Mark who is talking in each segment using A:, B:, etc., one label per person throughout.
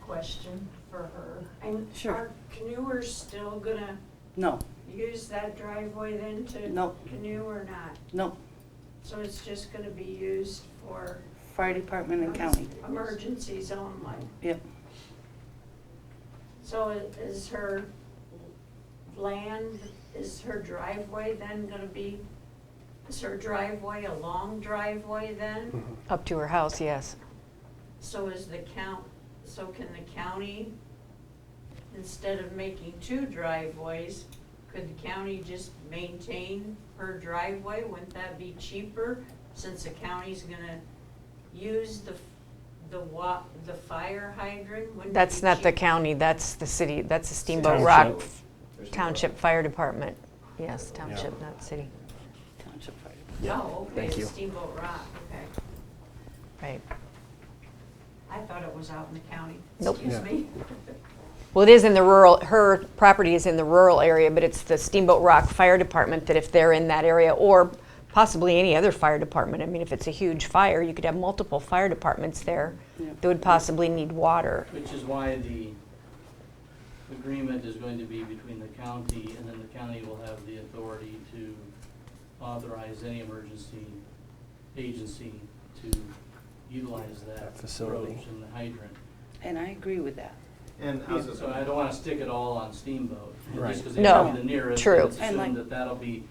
A: question for her. And
B: Sure.
A: Are canoers still gonna
B: No,
A: use that driveway then to
B: No.
A: canoe or not?
B: no,
A: So it's just gonna be used for
B: fire department and county.
A: emergencies only?
B: Yep,
A: So i- is her land, is her driveway then gonna be, is her driveway a long driveway
C: Mm-hmm.
A: then?
D: Up to her house, yes.
A: So is the count, so can the county, instead of making two driveways, could the county just maintain her driveway? Wouldn't that be cheaper since the county's gonna use the, f- the wa, the fire hydrant? Wouldn't it
D: That's
A: be
D: not the
A: cheap-
D: county, that's the city, that's the Steamboat
C: Township.
D: Rock
C: There's no-
D: Township Fire Department. Yes, township, not city.
B: township fire. department.
C: Yeah,
A: Oh, okay,
C: thank
A: it's
C: you.
A: Steamboat Rock, okay.
D: Right.
A: I thought it was out in the county.
D: Nope.
A: Excuse
C: Yeah.
A: me.
D: Well, it is in the rural, her property is in the rural area, but it's the Steamboat Rock Fire Department that if they're in that area, or possibly any other fire department, I mean, if it's a huge fire, you could have multiple fire departments there
B: Yeah.
D: that would possibly need water.
E: Which is why the agreement is going to be between the county, and then the county will have the authority to authorize any emergency agency to utilize that
C: That facility.
E: approach and the hydrant.
B: And I agree with that.
F: And how's this?
E: So I don't wanna stick it all on Steamboat,
C: Right.
E: just because they have
D: No,
E: the nearest,
D: true.
E: it's
B: And like-
E: assumed that that'll be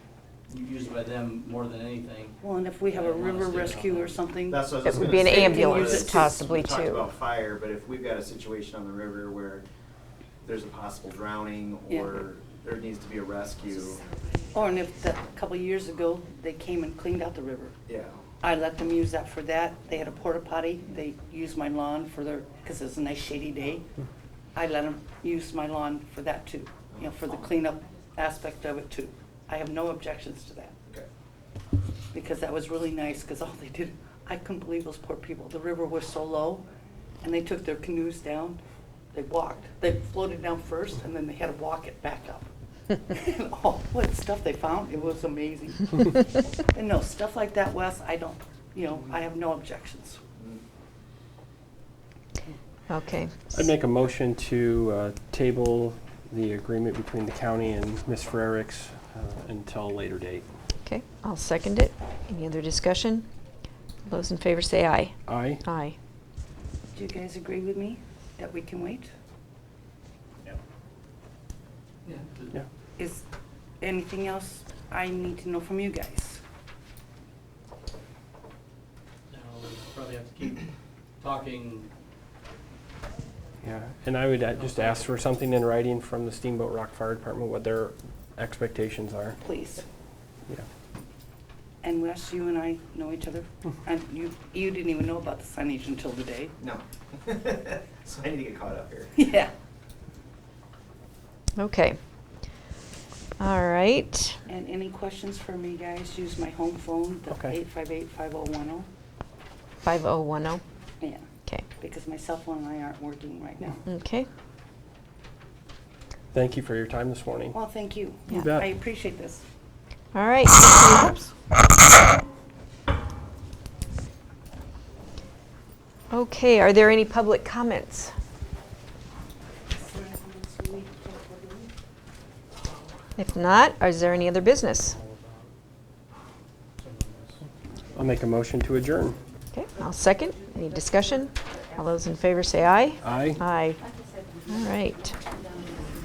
E: used by them more than anything.
B: Well, and if we have a
E: I don't wanna
B: river
E: stay on
B: rescue or
E: that.
B: something,
F: That's what I was
D: It would
F: gonna
D: be an
F: say, because
D: ambulance
F: we
D: possibly
F: talked
D: too.
F: about fire, but if we've got a situation on the river where there's a possible drowning
B: Yeah.
F: or there needs to be a rescue,
B: or Oh, and if the, a couple years ago, they came and cleaned out the river.
F: yeah.
B: I let them use that for that. They had a porta potty. They used my lawn for their, because it was a nice shady day. I let them use my lawn for that too, you know, for the cleanup aspect of it too. I have no objections to that.
F: Okay.
B: because that was really nice, because all they did, I couldn't believe those poor people. The river was so low, and they took their canoes down, they walked. They floated down first, and then they had to walk it back up. And all what stuff they found, it was amazing. And no, stuff like that, Wes, I don't, you know, I have no objections.
F: Mm,
D: Okay.
C: I'd make a motion to uh, table the agreement between the county and Ms. Frericks uh, until a later date.
D: Okay, I'll second it. Any other discussion? Those in favor say aye.
C: Aye?
D: Aye.
B: Do you guys agree with me that we can wait?
E: Yeah.
C: Yeah.
B: Is anything else I need to know from you guys?
E: Now, we probably have to keep talking
C: Yeah. And I would uh, just ask for something in writing from the Steamboat Rock Fire Department, what their expectations are.
B: Please.
C: Yeah.
B: And Wes, you and I know each other, and you, you didn't even know about the signage until today.
F: No. So I need to get caught up here.
B: Yeah.
D: Okay. All right.
B: And any questions for me, guys, use my home phone, the
C: Okay.
B: eight five eight five oh one oh.
D: 5010.
B: Yeah,
D: Okay.
B: because my cell phone and I aren't working right now.
D: Okay.
C: Thank you for your time this morning.
B: Well, thank you.
C: You
B: Yeah,
C: bet.
B: I appreciate this.
D: All right. thank you. Okay, are there any public comments? If not, is there any other business?
E: all about some of this.
C: I'll make a motion to adjourn.
D: Okay, I'll second. Any discussion? All those in favor say aye.
C: Aye?
D: Aye. All right.